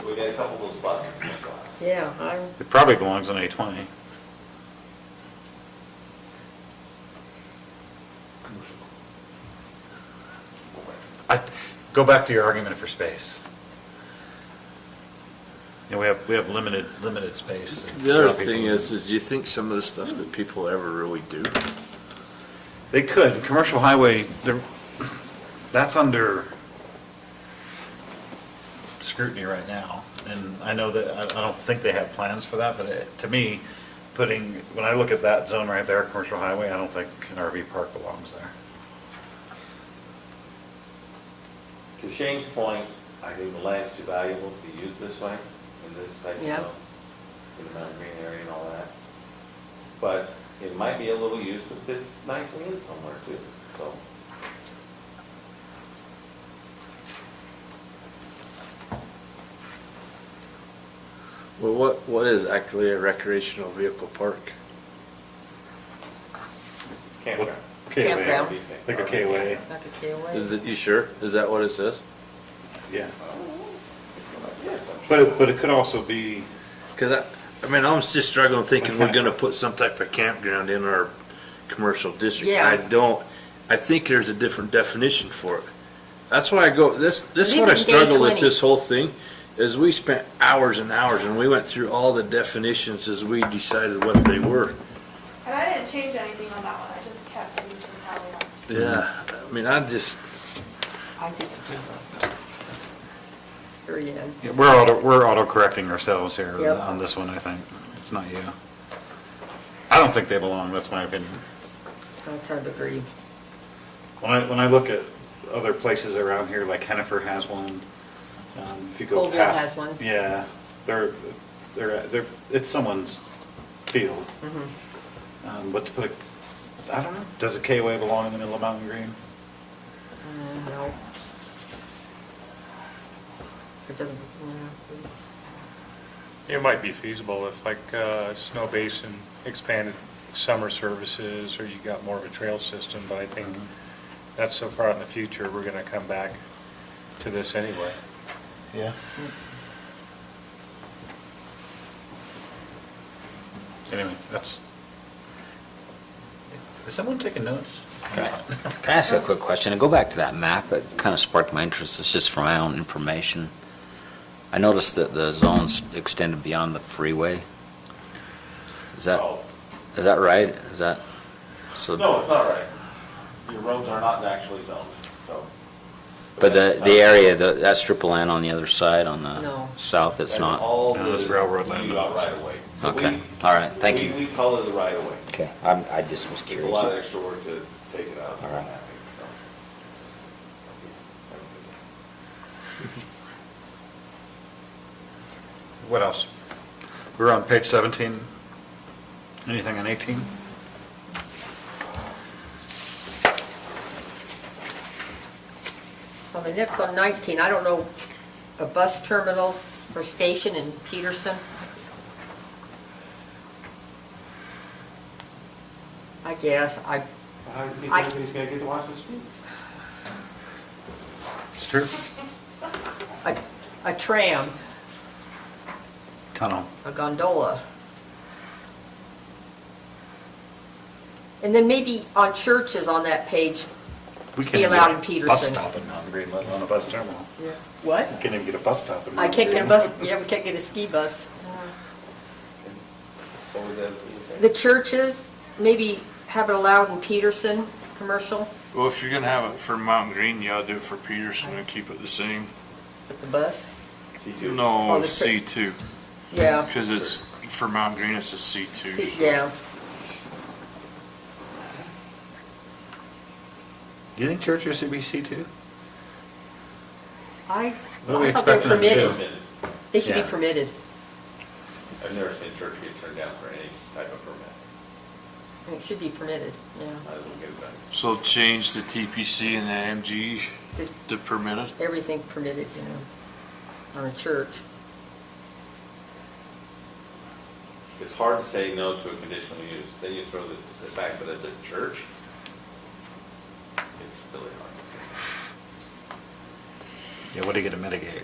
So we got a couple of those spots that can fly. Yeah, I'm, It probably belongs on A-20. Commercial. Go back. I, go back to your argument for space. You know, we have, we have limited, limited space. The other thing is, is do you think some of the stuff that people ever really do? They could, commercial highway, they're, that's under scrutiny right now. And I know that, I, I don't think they have plans for that, but it- to me, putting, when I look at that zone right there, commercial highway, I don't think an RV park belongs there. To Shane's point, I think the land's too valuable to be used this way, in this type of Yeah. zone, in the mountain green area and all that. But it might be a little use that fits nicely in somewhere too, so. Well, what, what is actually a recreational vehicle park? It's campground. K-way. Campground. Like a K-way, like a K away. Is it, you sure? Is that what it says? yeah. Yes, I'm But sure. it, but it could also be, Cause I, I mean, I'm just struggling thinking we're gonna put some type of campground in our commercial district. Yeah. I don't, I think there's a different definition for it. That's why I go, this, this is what I Leave it day struggle with 20. this whole thing, is we spent hours and hours and we went through all the definitions as we decided what they were. And I didn't change anything on that one, I just kept, it, this is how we are. Yeah, I mean, I just, I think. Here you go. Yeah, we're auto, we're auto-correcting ourselves here Yep. on this one, I think. It's not you. I don't think they belong, that's my opinion. I kind of agree. When I, when I look at other places around here, like Hennepin has one, um, if you go Colville past. has one. Yeah, they're, they're, they're, it's someone's field. Mm-hmm. Um, but to put a, I don't know, does a K-way belong in the middle of Mountain Green? Mm, No. It doesn't, no. It might be feasible if like uh, Snow Basin expanded summer services or you got more of a trail system, but I think that's so far out in the future, we're going to come back to this anyway. Yeah. Anyway, that's. Is someone taking notes? Can I ask you a quick question? And go back to that map, it kind of sparked my interest, it's just for my own information. I noticed that the zones extended beyond the freeway. Is that, Oh, is that right? Is that, so? No, it's not right. Your roads are not actually zoned, so. But the, the area, the- that strip of land on the other side, on the No. south, it's That's not? all No, it's the- railroad we land. got right away. Okay, all right, thank We- you. We call it the right away. Okay, I'm, I just was It's curious. a lot of extra work to take it out. All right. So. What else? We're on page 17. Anything on 18? On the next on 19, I don't know, a bus terminals or station in Peterson? I guess, I, How do you think I- everybody's gonna get to watch this movie? It's true. a a tram, Tunnel. a gondola. And then maybe on churches on that page, We can't Be even allowed get in a Bus Peterson. stop in Mountain Green, let alone a bus terminal. what? We can't even get a bus stop in I Mountain Green. can't get a bus, yeah, we can't get a ski bus. What was that? you were saying? The churches, maybe have it allowed in Peterson, commercial, well, if you're gonna have it for Mountain Green, you ought to do it for Peterson and keep it the same. with the bus, C2. Oh, No, the C two, yeah. because it's, for Mountain Green, it's a C two. See, Yeah, Do you think churches should be C2? I, What are we I thought they're expecting them to do? permitted. Permitted. They should be Yeah. permitted. I've never seen church get turned down for any type of permit. It should be permitted, yeah. Might as well get it done. So change the TPC and the MG Just to permitted? everything permitted, you know, on a church. It's hard to say no to a conditional use. Then you throw the, the fact that it's a church. It's really hard to say. Yeah, what are you going to mitigate?